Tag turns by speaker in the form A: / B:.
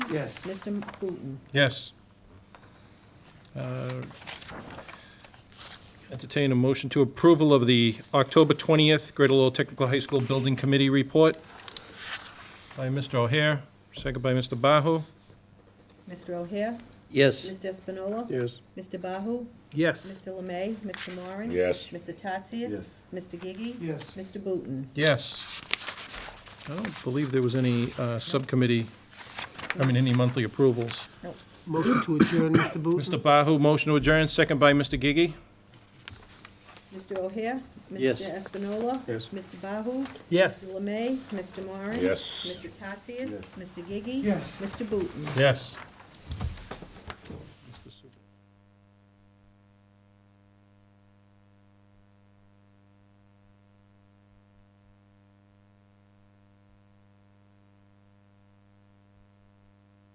A: Yes.
B: Mr. Booton?
C: Yes. Uh, Entertain a motion to approval of the October 20th Greater Lowell Technical High School Building Committee Report by Mr. O'Hare, second by Mr. Bahu.
B: Mr. O'Hare?
D: Yes.
B: Mr. Espinola?
E: Yes.
B: Mr. Bahu?
C: Yes.
B: Mr. Lemay? Mr. Moran?
D: Yes.
B: Mr. Tatsias?
A: Yes.
B: Mr. Gigi?
A: Yes.
B: Mr. Booton?
C: Yes. I don't believe there was any uh, subcommittee, I mean, any monthly approvals.
E: Motion to adjourn, Mr. Booton?
C: Mr. Bahu, motion to adjourn, second by Mr. Gigi.
B: Mr. O'Hare?
D: Yes.
B: Mr. Espinola?
E: Yes.
B: Mr. Bahu?
C: Yes.
B: Mr. Lemay? Mr. Moran?
D: Yes.
B: Mr. Tatsias?
A: Yes.
B: Mr. Gigi?
A: Yes.
B: Mr. Booton?
C: Yes.